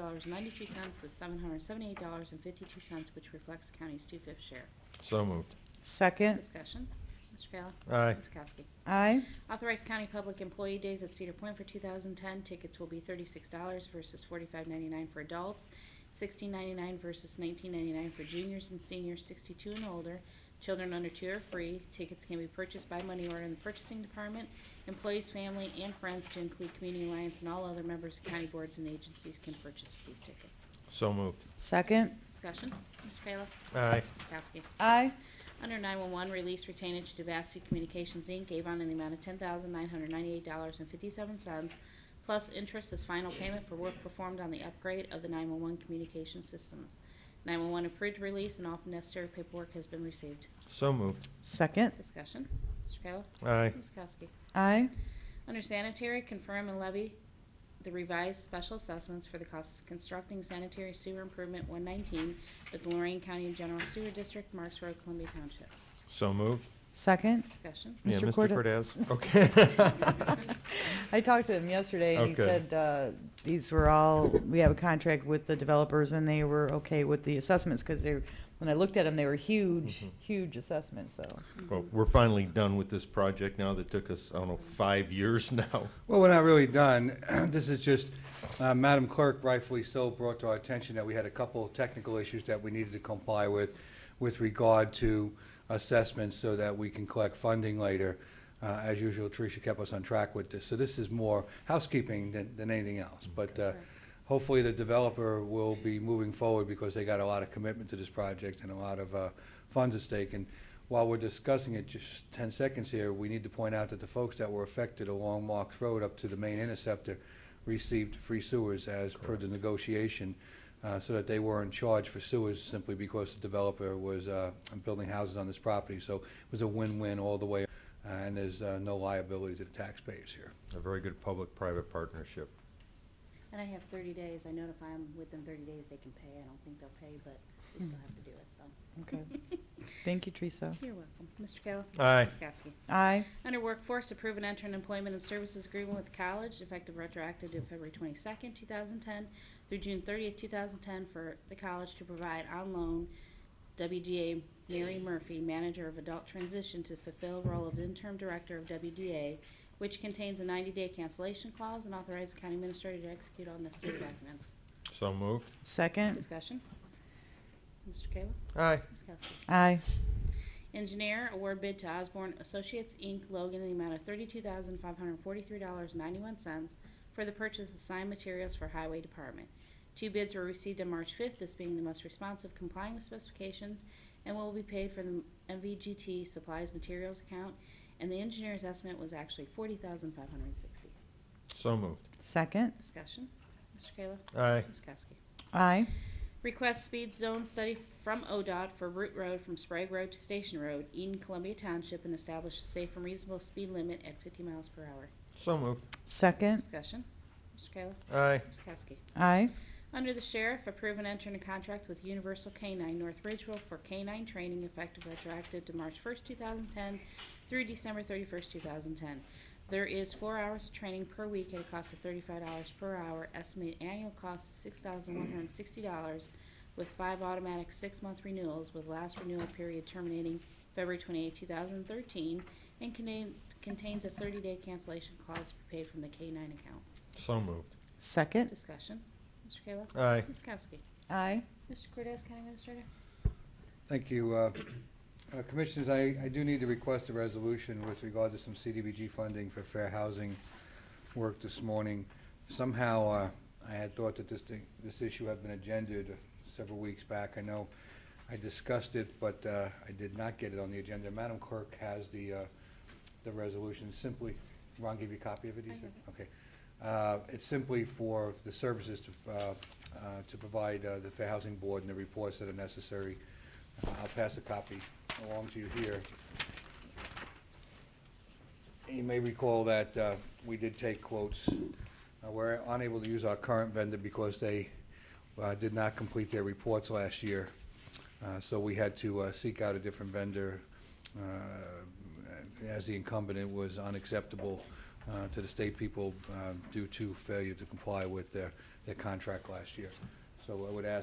dollars ninety-two cents to seven hundred seventy-eight dollars and fifty-two cents, which reflects the county's two-fifth share. So moved. Second. Discussion. Mr. Kayla. Aye. Ms. Kowski. Aye. Authorize county public employee days at Cedar Point for 2010. Tickets will be $36 versus $45.99 for adults, $16.99 versus $19.99 for juniors and seniors 62 and older. Children under two are free. Tickets can be purchased by money order in the purchasing department. Employees, family, and friends, to include community alliance and all other members of county boards and agencies, can purchase these tickets. So moved. Second. Discussion. Mr. Kayla. Aye. Ms. Kowski. Aye. Under 911, release retainage to Devastu Communications, Inc., Avon, in the amount of $10,998.57, plus interest as final payment for work performed on the upgrade of the 911 communication systems. 911 approved release and all necessary paperwork has been received. So moved. Second. Discussion. Mr. Kayla? Aye. Ms. Kowski? Aye. Under sanitary, confirm and levy the revised special assessments for the costs of constructing sanitary sewer improvement 119 with Lorraine County General Sewer District, Marks Road, Columbia Township. So moved. Second. Discussion. Yeah, Mr. Mr. Corda- Cordez. Okay. I talked to him yesterday and he Okay. said, uh, these were all, we have a contract with the developers and they were okay with the assessments because they, when I looked at them, they were huge, Mhm. huge assessments, so. Well, we're finally done with this project now that took us, I don't know, five years now. Well, we're not really done. This is just, uh, Madam Clerk rightfully so brought to our attention that we had a couple of technical issues that we needed to comply with, with regard to assessments so that we can collect funding later. Uh, As usual, Tricia kept us on track with this. So this is more housekeeping than, than anything else. But uh, hopefully the developer will be moving forward because they got a lot of commitment to this project and a lot of uh, funds at stake. And while we're discussing it, just 10 seconds here, we need to point out that the folks that were affected along Marks Road up to the main interceptor received free sewers as per the negotiation, uh, so that they weren't charged for sewers simply because the developer was uh, building houses on this property. So it was a win-win all the way, uh, and there's uh, no liability to the taxpayers here. A very good public-private partnership. And I have thirty days, I notify them within thirty days they can pay, I don't think they'll pay, but we still have to do it, so. Okay. Thank you, Teresa. You're welcome. Mr. Kayla? Aye. Ms. Kowski? Aye. Under Workforce, approve and enter an employment and services agreement with the college effective retroactive to February twenty-second, two thousand ten through June thirtieth, two thousand ten for the college to provide on loan WDA Mary Murphy, manager of adult transition, to fulfill the role of interim director of WDA, which contains a ninety-day cancellation clause and authorize the county administrator to execute all necessary documents. So moved. Second. Discussion. Mr. Kayla? Aye. Ms. Kowski? Aye. Engineer, award bid to Osborne Associates, Inc., Logan, in the amount of $32,543.91 for the purchase of signed materials for Highway Department. Two bids were received on March 5th, this being the most responsive complying with specifications, and will be paid from the MVGT Supplies Materials account, and the engineer's estimate was actually $40,560. So moved. Second. Discussion. Mr. Kayla? Aye. Ms. Kowski? Aye. Request speed zone study from ODOT for Route Road from Sprague Road to Station Road, Eden Columbia Township, and establish a safe and reasonable speed limit at 50 miles per hour. So moved. Second. Discussion. Mr. Kayla. Aye. Ms. Kowski. Aye. Under the Sheriff, approve and enter into contract with Universal Canine North Ridgeville for canine training effective retroactive to March 1st, 2010 through December 31st, 2010. There is four hours of training per week at a cost of $35 per hour. Estimated annual cost is $6,160 with five automatic six-month renewals with last renewal period terminating February 28, 2013 and contain- contains a 30-day cancellation clause to be paid from the K-9 account. So moved. Second. Discussion. Mr. Kayla? Aye. Ms. Kowski? Aye. Mr. Cortez, County Administrator? Thank you. uh, uh, Commissioners, I, I do need to request a resolution with regard to some CDBG funding for fair housing work this morning. Somehow, uh, I had thought that this thing, this issue had been agended several weeks back. I know I discussed it, but uh, I did not get it on the agenda. Madam Clerk has the, uh, the resolution simply, Ron give you a copy of it? you I said? have Okay. Uh, It's simply for the services to, uh, uh, to provide uh, the Fair Housing Board and the reports that are necessary. Uh, I'll pass a copy along to you here. You may recall that uh, we did take quotes. Uh, We're unable to use our current vendor because they uh, did not complete their reports last year. Uh, So we had to uh, seek out a different vendor uh, as the incumbent it was unacceptable uh, to the state people uh, due to failure to comply with their their the contract last year. So I would ask